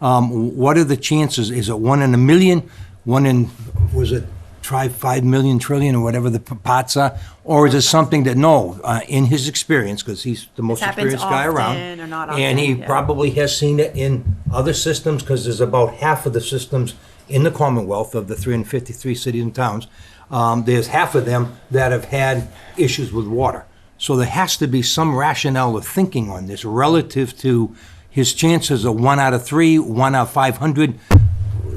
Um, What are the chances? Is it one in a million? One in, was it try five million trillion or whatever the p- pots are? Or is it something that, no, uh, in his experience, because he's the most happens experienced guy around. often or not And he often, yeah. probably has seen it in other systems, because there's about half of the systems in the Commonwealth of the 353 cities and towns. um, There's half of them that have had issues with water. So there has to be some rationale of thinking on this relative to his chances of one out of three, one out of 500.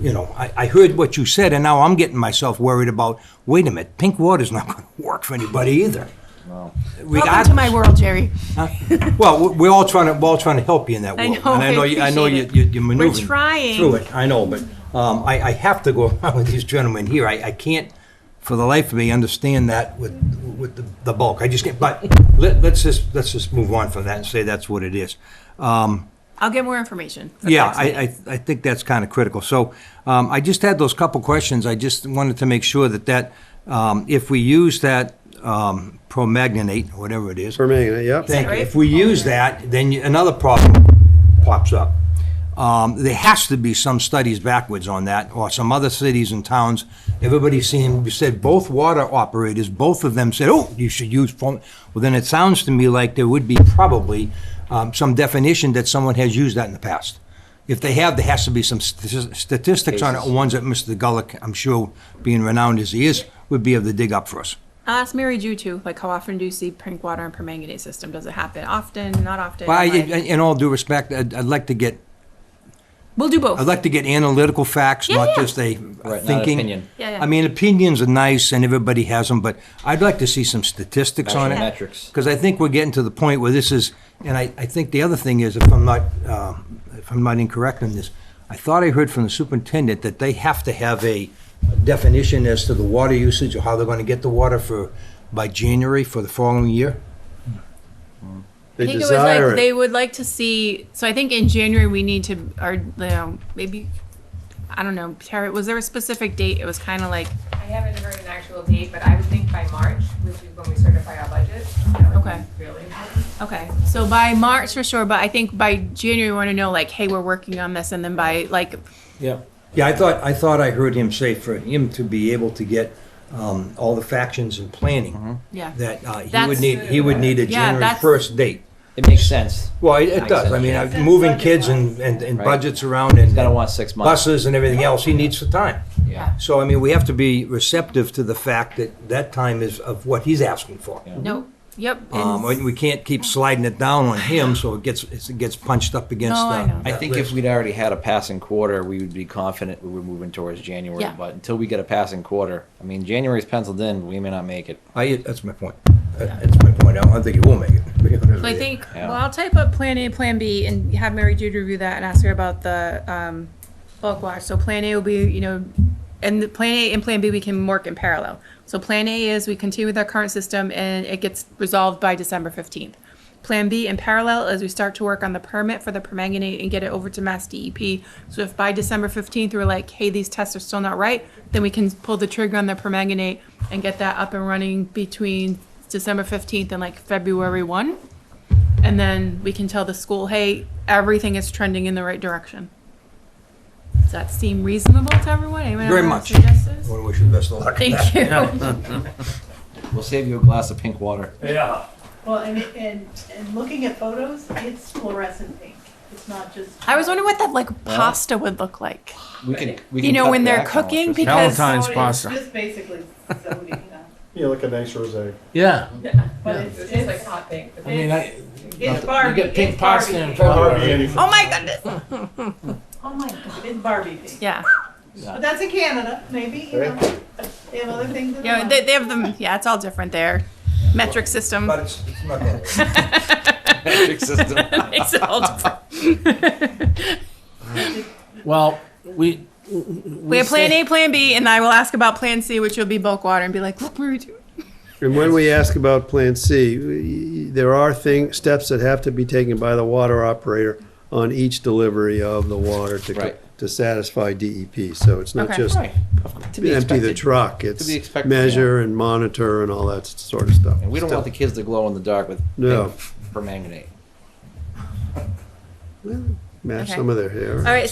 You know, I, I heard what you said, and now I'm getting myself worried about, wait a minute, pink water's not going to work for anybody either. Welcome to my Regardless. world, Jerry. Well, we- we're all trying to, we're all trying to help you in that I world. know, And I know, you- I know you- appreciate it. you- you're We're maneuvering trying. through it, I know, but um, I, I have to go around with these gentlemen here. I, I can't, for the life of me, understand that with, with the- the bulk. I just can't, but let, let's just, let's just move on from that and say that's what it is. Uh, I'll get more information. for the Yeah, next I, meeting. I, I think that's kind of critical. So um, I just had those couple questions. I just wanted to make sure that that, um, if we use that um, promagnate, whatever it is. Permanganate, yep. Thank you. right? If we use that, then you- another problem pops up. Um, There has to be some studies backwards on that, or some other cities and towns. Everybody seen, you said both water operators, both of them said, oh, you should use foam. Well, then it sounds to me like there would be probably um, some definition that someone has used that in the past. If they have, there has to be some st- statistics on it, ones that Mr. Gullik, I'm sure, being renowned as he is, would be able to dig up for us. I'll ask Mary Jew too, like how often do you see pink water and permanganate system? Does it happen often, not often? Well, I- Like- in in all due respect, I'd I'd like to get We'll do both. I'd like to get analytical facts, Yeah, not yeah. just a not thinking. opinion. Yeah, yeah. I mean, opinions are nice and everybody has them, but I'd like to see some statistics on it. Actual metrics. Because I think we're getting to the point where this is, and I, I think the other thing is, if I'm not, um, if I'm not incorrect on this, I thought I heard from the superintendent that they have to have a definition as to the water usage or how they're going to get the water for, by January for the following year. They I think it was like desire they it. would like to see. So I think in January we need to, or you know, maybe I don't know. Tara, was there a specific date? It was kind of like I haven't heard an actual date, but I would think by March, which is when we certify our budget. that would be Okay. Really important. okay. So by March for sure, but I think by January we want to know like, hey, we're working on this, and then by like, Yeah. Yeah, I thought, I thought I heard him say for him to be able to get um, all the factions and Mm-hmm. planning. yeah, That uh, he would That's- need, he would need a Yeah, January that's- first date. It makes sense. Well, it- it Makes does, I sense. mean, uh, moving kids and, and and Right. budgets around and He's gonna want six months. buses and everything else, he needs the time. Yeah. So, I mean, we have to be receptive to the fact that that time is of what he's asking for. no, yep. and- Um, and we can't keep sliding it down on him, so it gets, it gets punched up against. No, I uh, know. I that think if list. we'd already had a passing quarter, we would be confident we were moving towards January. Yeah. But until we get a passing quarter, I mean, January's penciled in, we may not make it. I, that's my point, That- that's my point, I don't think he will make it. to be honest with So I you. think, Yeah. well, I'll type up Plan A, Plan B, and have Mary Jude review that and ask her about the um, bulk wash. So Plan A will be, you know, and the Plan A and Plan B, we can work in parallel. So Plan A is we continue with our current system and it gets resolved by December 15th. Plan B in parallel is we start to work on the permit for the permanganate and get it over to Mass DEP. So if by December 15th, we're like, hey, these tests are still not right, then we can pull the trigger on the permanganate and get that up and running between December 15th and like February 1. And then we can tell the school, hey, everything is trending in the right direction. Does that seem reasonable to everyone? Anyone Very have much. I suggestions? wanna wish you the best of luck. Thank you. uh, We'll save you a glass of pink water. Yeah. Well, and, and, and looking at photos, it's fluorescent pink. It's not just. I was wondering what that like pasta would look like. We can, we You can know, cut when they're back on it. cooking, Just- because So Valentine's it's pasta. Just basically sodium, Yeah, like a nice rosé. Yeah. but It's it's, just like it's, hot pink. I mean, I, it's Barbie. get pink it's pasta Barbie and pink. Oh Oh my goodness. Oh my God, it's Barbie pink. Yeah. But that's in Canada, maybe, you know, they have other things in Yeah, mind. they, they have them. Yeah, it's all different there. Metric system. But it's, it's not gonna work. Metric system. Makes it all different. well, we. We have plan A, plan B, and I will ask about plan C, which will be bulk water, and be like, look, we were doing. And when we ask about Plan C, we- there are thing, steps that have to be taken by the water operator on each delivery of the water to, co- Right. to satisfy DEP. So it's not Okay. just Right. To be empty the expected. truck, it's be expected, yeah. measure and monitor and all that sort of stuff. And we don't want the kids to glow in the dark with No. pink permanganate. Match Okay. some of their hair. All right,